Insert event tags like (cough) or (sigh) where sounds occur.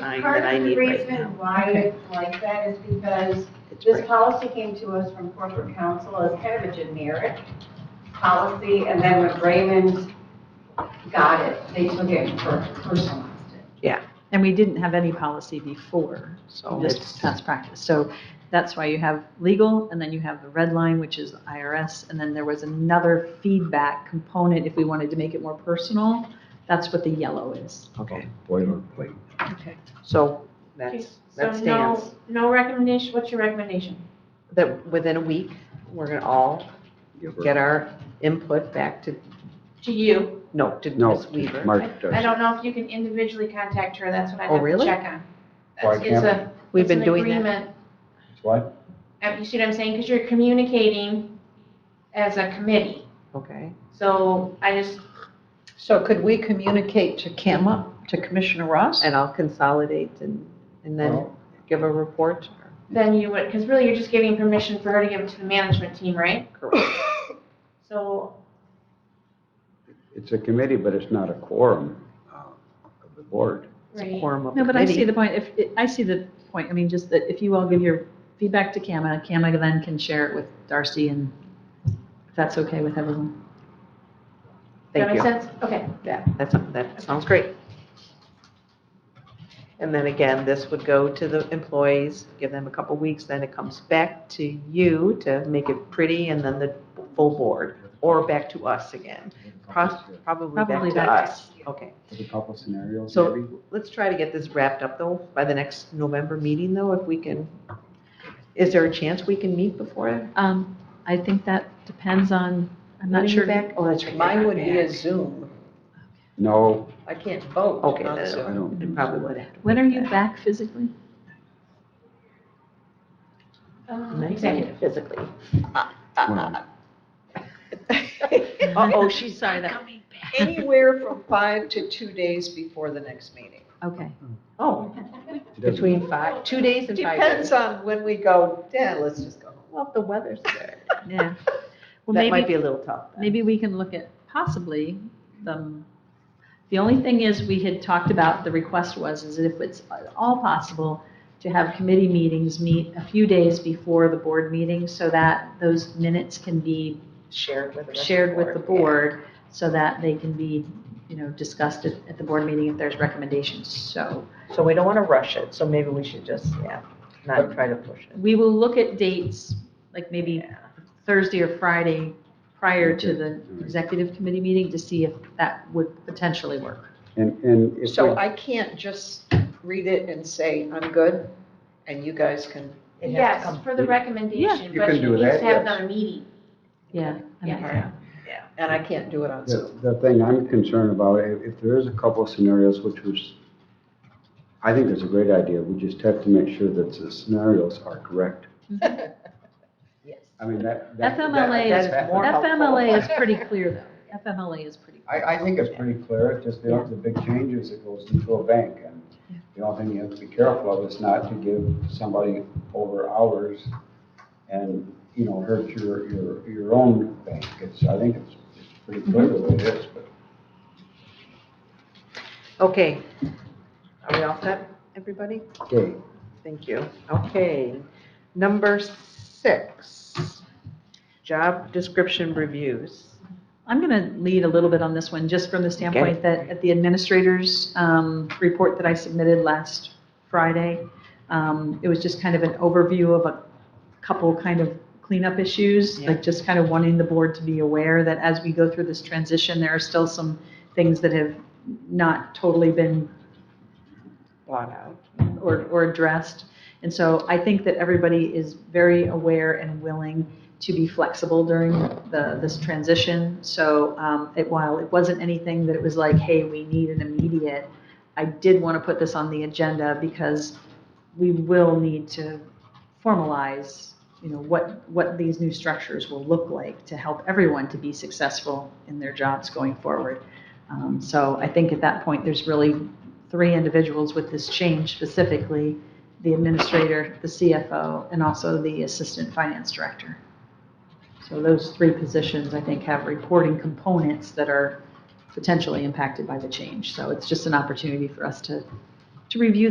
time Part of that I the need right reason now. Why it's like that is because It's this right. policy came to us from corporate counsel as kind of a generic policy, and then when Raymond got it, they took it and per- personalized it. And we didn't have any policy before, So just Oh, it's, past practice. So that's why you have legal, and then you have the red line, which is IRS, and then there was another feedback component if we wanted to make it more personal. That's what the yellow is. okay, Boilerplate. Okay. so Okay, that's, So that stands. no, no recommendation, what's your recommendation? That within a week, we're gonna all Give her- get our input back to, To you. no, to No, Ms. Weaver. Mark does. I don't know if you can individually contact her, that's what I Oh, have to really? check on. Why It's- It's can't a, We've it's been an doing that. agreement. What? Uh, You see what I'm saying? Because you're communicating as a committee. Okay. So I just, So could we communicate to Kama, to Commissioner Ross? And I'll consolidate and, and then Well, give a report to her. then you would, because really you're just giving permission for her to give it to the management team, right? Correct. (coughs) So, It's a committee, but it's not a quorum uh, of the board. right, Quorum of No, but I see committee. the point, if, I see the point, I mean, just that if you all give your feedback to Kama, Kama then can share it with Darcy and if that's okay with everyone. Thank that makes you. sense? Okay. Yeah, that's, that sounds great. And then again, this would go to the employees, give them a couple weeks, then it comes back to you to make it pretty and then the full board, or back to us again. Pro- Probably Probably back to back to us. you. Okay, There's a couple scenarios, So- maybe. let's try to get this wrapped up though, by the next November meeting though, if we can. Is there a chance we can meet before? then? Um, I think that depends on, I'm When are not you sure. back? Oh, that's right. you're Mine not would be a back. Zoom. No, I can't vote Okay, on no, I Zoom. don't. It Probably would have. to When be are you back. back physically? Uh, Executive. Mentally, physically. Well, Uh-oh, she's Sorry, that- coming (laughs) back. Anywhere from five to two days before the next meeting. Okay. Oh, it doesn't- between five, two days and five days. Depends on when we go, yeah, let's just go. Well, if the weather's there. (laughs) Yeah. Well, That might maybe, be a little tough. then. maybe we can look at possibly, the, the only thing is, we had talked about, the request was, is that if it's at all possible, to have committee meetings meet a few days before the board meeting, so that those minutes can be Shared with the rest of shared with the yeah. board, so that they can be, you know, discussed at, at the board meeting if there's recommendations, so. So we don't want to rush it, so maybe we should just, yeah, not try to push it. We will look at dates, like maybe Thursday or Friday prior to Okay, the alright. executive committee meeting to see if that would potentially work. And, and if So uh, we, I can't just read it and say, I'm good, and you guys can. It has to Yes, come- for the recommendation, You but can she do needs that, to have yes. another meeting. Yeah. I mean, Yeah. Yeah. And I can't do it on the, Zoom. the thing I'm concerned about, if, if there is a couple scenarios, which was, I think it's a great idea, we just have to make sure that the scenarios are correct. Yes. I mean, that. that- that- FMLA that is, is that- more helpful. FMLA is pretty clear though. FMLA is pretty. I, I think it's pretty clear, it's just the, the big change is it goes into a bank, and the only thing you have to be careful of is not to give somebody over hours and, you know, hurt your, your, your own bank, it's, I think it's, it's pretty clear the way it is, but. Okay. Are we all set, everybody? Okay, Thank you. Okay. Number six, job description reviews. I'm going to lead a little bit on this one, just from the standpoint that at the administrator's um, report that I submitted last Friday, um, it was just kind of an overview of a couple kind of cleanup issues, Yeah. like just kind of wanting the board to be aware that as we go through this transition, there are still some things that have not totally been Bought out. or, or addressed. And so I think that everybody is very aware and willing to be flexible during the, this transition. So um, it, while it wasn't anything that it was like, hey, we need an immediate, I did want to put this on the agenda because we will need to formalize, you know, what, what these new structures will look like to help everyone to be successful in their jobs going forward. Um, So I think at that point, there's really three individuals with this change specifically, the administrator, the CFO, and also the assistant finance director. So those three positions, I think, have reporting components that are potentially impacted by the change. So it's just an opportunity for us to, to review that.